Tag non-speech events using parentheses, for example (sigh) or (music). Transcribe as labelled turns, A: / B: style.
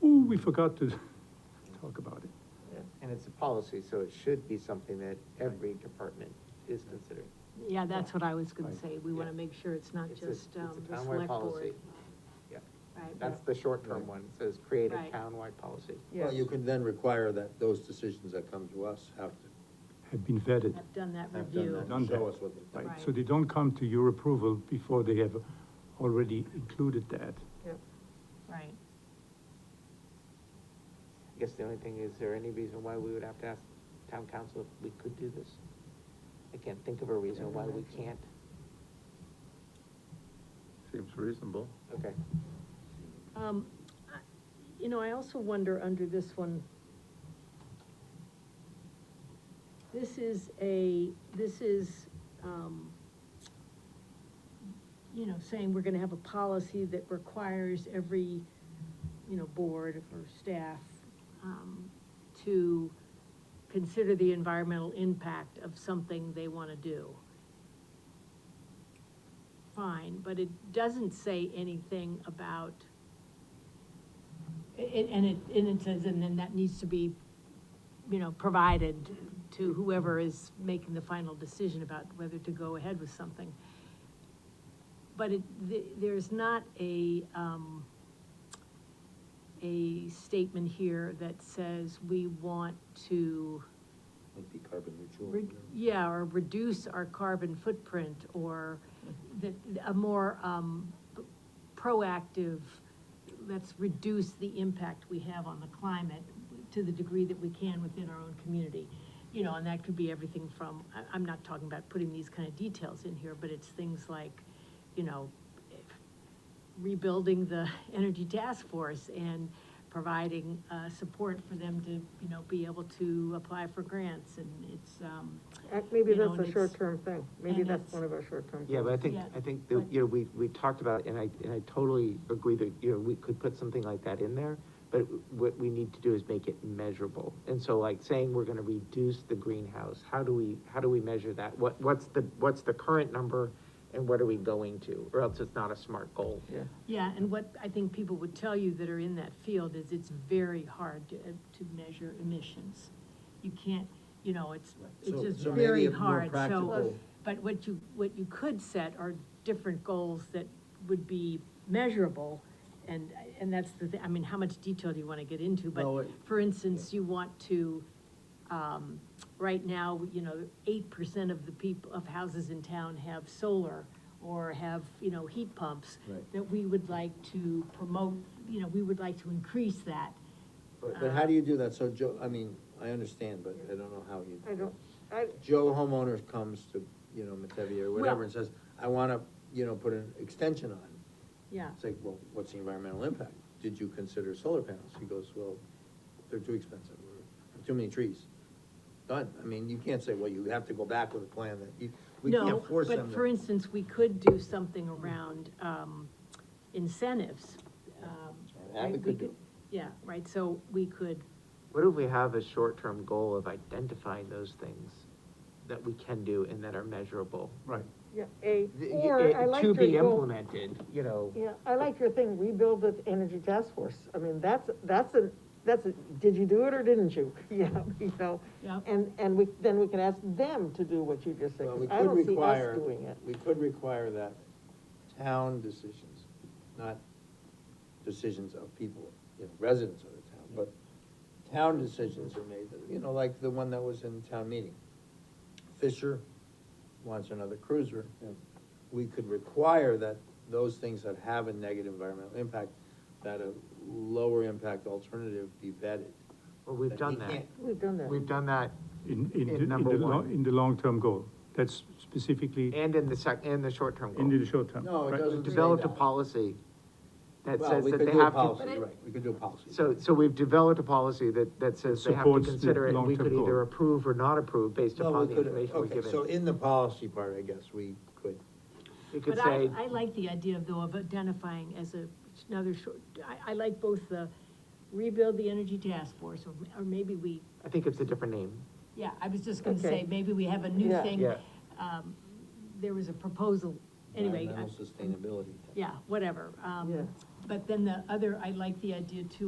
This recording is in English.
A: we forgot to (laughs) talk about it.
B: And it's a policy, so it should be something that every department is considering.
C: Yeah, that's what I was gonna
A: Right.
C: say, we wanna
B: Yeah.
C: make sure it's not
B: It's a-
C: just,
B: It's
C: um,
B: a
C: the
B: townwide
C: select
B: policy.
C: board.
B: Yeah,
C: Right.
B: that's the short-term one, it says create a
C: Right.
B: townwide policy.
D: Well, you can then require that those decisions that come to us have to
A: Had been vetted,
C: I've done that
D: have done
C: review.
D: that,
A: Done
D: and show
A: that.
D: us what they
A: right?
D: think.
A: So they don't come to your approval before they have already included that.
C: Right.
B: I guess the only thing, is there any reason why we would have to ask town council if we could do this? I can't think of a reason why we can't.
E: Seems reasonable.
B: Okay.
C: Um, I- you know, I also wonder under this one, this is a, this is, um, you know, saying we're gonna have a policy that requires every, you know, board or staff, um, to consider the environmental impact of something they wanna do fine, but it doesn't say anything about, i- i- and it, and it says, and then that needs to be, you know, provided to whoever is making the final decision about whether to go ahead with something. But it, th- there's not a, um, a statement here that says we want to,
D: Might be carbon neutral.
C: Re- Yeah, or reduce our carbon footprint, or the, a more, um, p- proactive, let's reduce the impact we have on the climate to the degree that we can within our own community. You know, and that could be everything from, I, I'm not talking about putting these kind of details in here, but it's things like, you know, rebuilding the energy task force and providing, uh, support for them to, you know, be able to apply for grants, and it's, um,
F: Uh, Maybe
C: You know,
F: that's
C: and
F: a
C: it's-
F: short-term thing, maybe
C: and
F: that's
C: it's-
F: one of our short-term.
B: Yeah, but I
F: things.
B: think,
C: Yeah.
B: I think, that, you know, we, we talked about, it, and I, and I totally agree that, you know, we could put something like that in there, but what we need to do is make it measurable. And so like saying we're gonna reduce the greenhouse, how do we, how do we measure that? What, what's the, what's the current number and what are we going to? Or else it's not a smart goal. Yeah.
C: Yeah, and what I think people would tell you that are in that field is it's very hard to, uh, to measure emissions. You can't, you know, it's, it's
D: So-
C: just
D: so maybe
C: very
D: a more
C: hard, so. uh,
D: practical-
C: But what you, what you could set are different goals that would be measurable, and, and that's the, thi- I mean, how much detail do you wanna get into?
D: No,
C: But,
D: it-
C: for instance, you want to, um, right now, you know, eight percent of the people, of houses in town have solar or have, you know, heat pumps.
D: Right.
C: That we would like to promote, you know, we would like to increase that.
D: But but how do you do that? So Joe, I mean, I understand, but I don't know how you.
F: I don't, I,
D: Joe homeowners comes to, you know, Metevi or
C: Well-
D: whatever and says, I wanna, you know, put an extension on.
C: Yeah.
D: It's like, well, what's the environmental impact? Did you consider solar panels? He goes, well, they're too expensive, or too many trees. Done. I mean, you can't say, well, you have to go back with a plan that you, we
C: No,
D: can't force them.
C: But
D: to-
C: for instance, we could do something around, um, incentives. um,
D: That we
C: right?
D: could do.
C: Yeah, right, so we could,
B: What if we have a short-term goal of identifying those things that we can do and that are measurable?
A: Right.
F: yeah, A,
B: Th-
F: or I
B: it-
F: like
B: To
F: your
B: be
F: goal.
B: implemented, you know.
F: Yeah, I like your thing, rebuild the energy task force, I mean, that's, that's a, that's a, did you do it or didn't you? (laughs) Yeah, you know,
C: Yeah.
F: and, and we, then we can ask them to do what you just said,
D: Well,
F: 'cause
D: we
F: I
D: could
F: don't see us
D: require,
F: doing it.
D: we could require that town decisions, not decisions of people, you know, residents of the town, but town decisions are made, you know, like the one that was in town meeting. Fisher wants another cruiser. We could require that those things that have a negative environmental impact, that a lower impact alternative be vetted.
B: Well, we've
D: That
B: done
D: he
B: that.
D: can't-
F: We've done that.
B: We've done that
A: In, in,
B: In
A: the- in the,
B: number
A: lo-
B: one.
A: in the long-term goal, that's specifically
B: and in the sec, and the short-term
A: in the
B: goal.
A: short term.
D: No, it
A: right?
D: doesn't say
B: Developed a
D: that.
B: policy that
D: Well,
B: says
D: we
B: that
D: could
B: they
D: do a
B: have to.
D: policy, Right, we could do a policy.
B: So, so we've developed a policy that, that says they have to
A: Supports the
B: consider it, and we
A: long-term
B: could
A: goal.
B: either approve or not approve based
D: Well,
B: upon the
D: we could-
B: information we're
D: okay, So
B: given.
D: in the policy part, I guess, we could,
B: We could
C: But I,
B: say,
C: I like the idea though of identifying as a, another short, I, I like both the rebuild the energy task force, or, or maybe we,
B: I think it's a different name.
C: yeah, I was just gonna
F: Okay.
C: say, maybe we have a new
F: Yeah.
C: thing.
B: Yeah.
C: Um, there was a proposal, anyway, I-
D: environmental sustainability.
C: yeah, whatever,
F: Yeah.
C: um, but then the other, I like the idea too